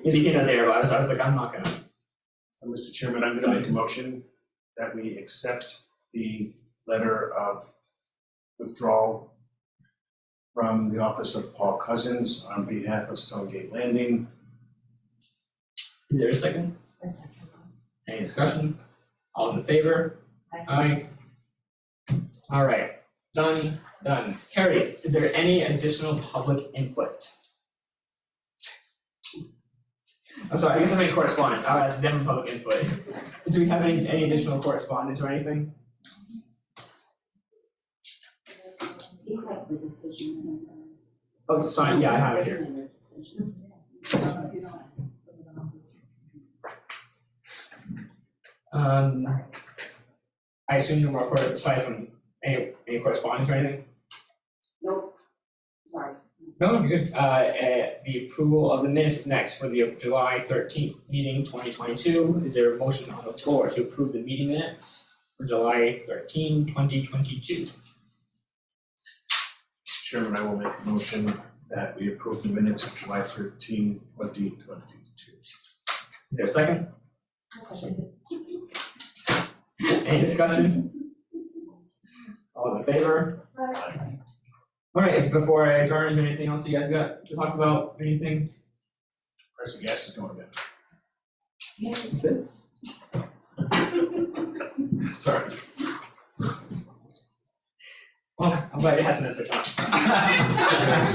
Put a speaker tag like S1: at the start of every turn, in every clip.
S1: Speaking of there, I was, I was like, I'm not gonna,
S2: Uh, Mr. Chairman, I'm gonna make a motion that we accept the letter of withdrawal from the office of Paul Cousins on behalf of Stonegate Landing.
S1: is there a second?
S3: A second.
S1: Any discussion? All in favor? Aye. All right, done, done. Carrie, is there any additional public input? I'm sorry, I guess I meant correspondence, I'll ask them public input. Do we have any, any additional correspondence or anything?
S3: He has the decision.
S1: Oh, sorry, yeah, I have it here. Um, I assume no more, cor- aside from any, any correspondence or anything?
S3: Nope, sorry.
S1: No, I'm good. Uh, uh, the approval of the minutes is next for the July thirteenth meeting twenty twenty-two. Is there a motion on the floor to approve the meeting minutes for July 13, 2022?
S2: Mr. Chairman, I will make a motion that we approve the minutes of July 13, 2022.
S1: Is there a second? Any discussion? All in favor? Alright, is before I adjourn, is there anything else you guys got to talk about, anything?
S2: Price of gas is going down.
S1: Since?
S2: Sorry.
S1: Well, I'm glad it hasn't been put on.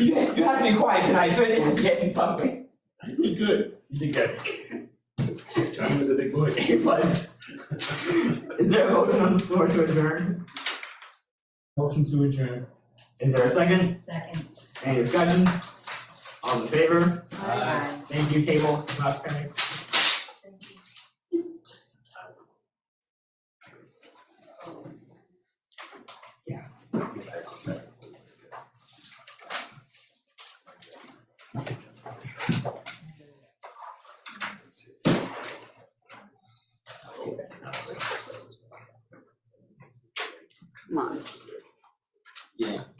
S1: You, you have to be quiet tonight, so you have to get in something.
S2: You did good.
S1: You did good.
S2: Johnny was a big boy.
S1: But is there a motion on the floor to adjourn? Motion to adjourn. Is there a second?
S3: Second.
S1: Any discussion? All in favor?
S3: Aye.
S1: Thank you, Cable, Not coming.
S3: Come on.
S1: Yeah.